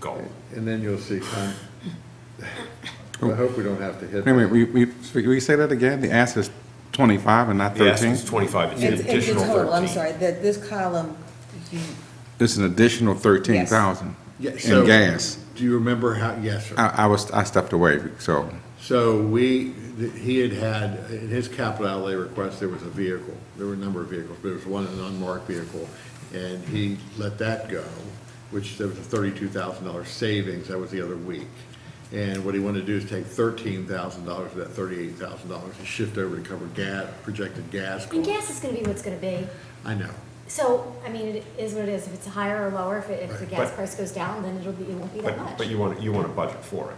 go. And then you'll see, con- I hope we don't have to hit. Wait a minute, we, we, so we say that again? The ask is twenty-five and not The ask thirteen? is twenty-five, it's It's, an it's the additional total, I'm thirteen. sorry, that this column, you, It's an additional thirteen thousand Yeah, so- in gas. Do you remember how, yes, sir. I, I was, I stepped away, so, So we, th- he had had, in his capital outlay request, there was a vehicle. There were a number of vehicles, but there was one, an unmarked vehicle. And he let that go, which there was a thirty-two thousand dollar savings. That was the other week. And what he wanted to do is take thirteen thousand dollars of that thirty-eight thousand dollars and shift over to cover gas, projected gas And costs. gas is gonna be what's gonna be. I know. So, I mean, it is what it is. If it's higher or lower, if, it- if the Right. gas But- price goes down, then it'll be, it won't be that But, much. but you want, you want to budget for it.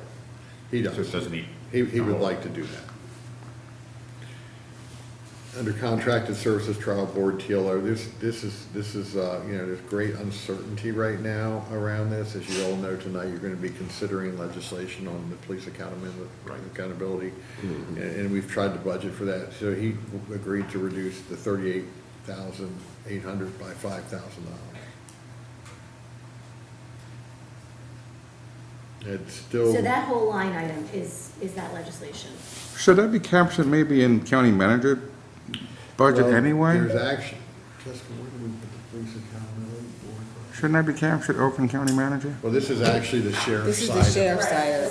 He So it does. doesn't need. He, he would like to do that. Under contracted services trial board TLO, this, this is, this is, uh, you know, there's great uncertainty right now around this. As you all know tonight, you're gonna be considering legislation on the police accountability, accountability. And, and we've tried to budget for that. So he agreed to reduce the thirty-eight thousand eight hundred by five thousand dollars. It's still. So that whole line item is, is that legislation. should that be captured maybe in county manager budget Well, anyway? There's action. Jessica, where do we put the police accountability board? Shouldn't that be captured, Oakland County manager? Well, this is actually the sheriff's this is side. the of it. sheriff's side of it.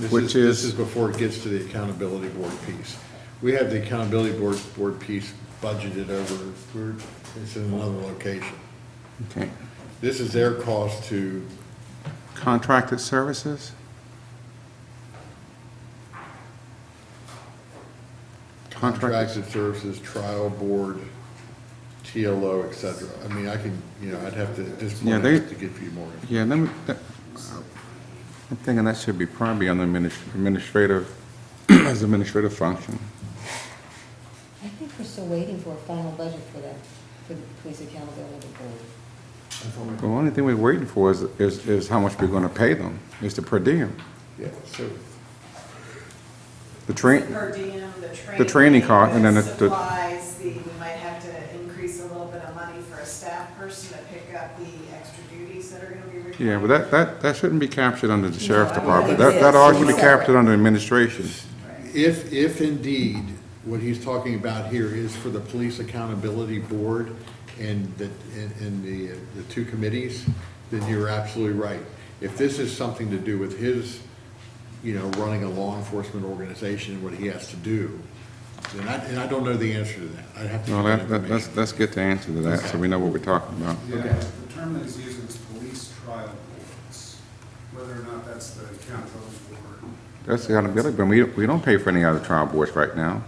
This Which This is- is before it gets to the accountability board piece. We have the accountability board, board piece budgeted over, we're- it's in another location. Okay, This is their cost to, contracted services? Contracted, Contracted services, trial board, TLO, et cetera. I mean, I can, you know, I'd have to, at this Yeah, point, I they- have to give you more. yeah, let me, that- I'm thinking that should be probably on the adminis- administrative, as administrative function. I think we're still waiting for a final budget for that, for the police accountability board. The only thing we're waiting for is, is, is how much we're gonna pay them, is the per diem, Yeah, so, the train, Per diem, the training. The training cost, and then the- the- Supplies, the, we might have to increase a little bit of money for a staff person to pick up the extra duties that are gonna be required. yeah, but that, that, that shouldn't be captured under the sheriff's No, I department. wouldn't That, that think so. ought to be captured under administration. If, if indeed what he's talking about here is for the Police Accountability Board and the, and and the, the two committees, then you're absolutely right. If this is something to do with his, you know, running a law enforcement organization, and what he has to do, then I, and I don't know the answer to that. I'd have to. Well, get that, that, let's, information. let's get the answer to that, so we know what we're talking about. Yeah, the term that is used is police trial boards, whether or not that's the accountability board. That's the accountability, but we, don't- we don't pay for any other trial boards right now.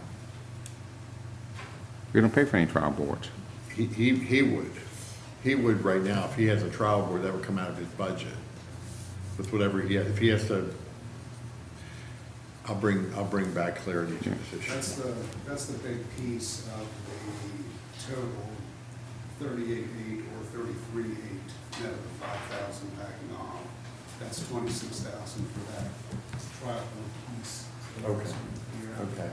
We don't pay for any trial boards. He, he, he would. He would right now, if he has a trial board, that would come out of his budget with whatever he, if he has to, I'll bring, I'll bring back clarity to this That's issue. the, that's the big piece of the total thirty-eight-eight or thirty-three-eight, net of the five thousand backing off. That's twenty-six thousand for that trial board piece. Okay. Yeah. Okay.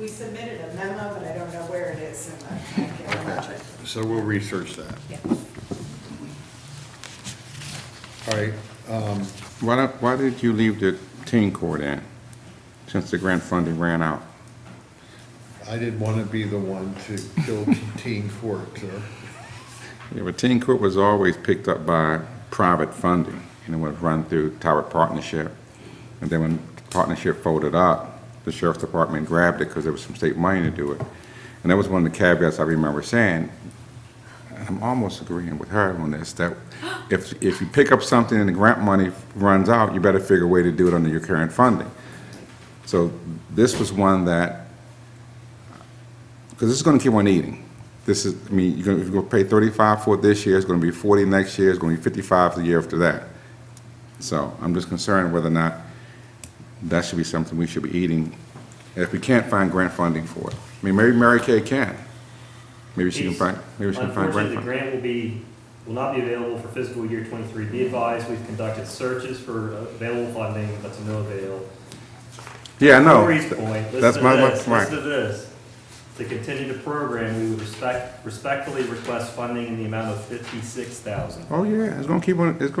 We submitted a memo, but I don't know where it is in the, I budget. So we'll research that. All right, um, Why, don't- why did you leave the teen court in, since the grant funding ran out? I didn't want to be the one to kill teen court, sir. Yeah, but teen court was always picked up by private funding, and it was run through Tower Partnership. And then when partnership folded up, the sheriff's department grabbed it because there was some state money to do it. And that was one of the caveats I remember saying, and I'm almost agreeing with her on this, that if, if you pick up something and the grant money runs out, you better figure a way to do it under your current funding. So this was one that because this is going to keep on eating. This is, I mean, you're going to pay 35 for it this year, it's going to be 40 next year, it's going to be 55 the year after that. So I'm just concerned whether or not that should be something we should be eating, if we can't find grant funding for it. I mean, maybe Mary Kay can. Maybe she can These- find, maybe she can find grant Unfortunately, the funding. grant will be, will not be available for fiscal year twenty-three. Be advised, we've conducted searches for available funding, but to no avail. Yeah, I know. Corey's point, That's listen my- to my- this, right. listen to this. To continue the program, we would respect, respectfully request funding in the amount of fifty-six thousand. Oh, yeah, it's going to keep on, it's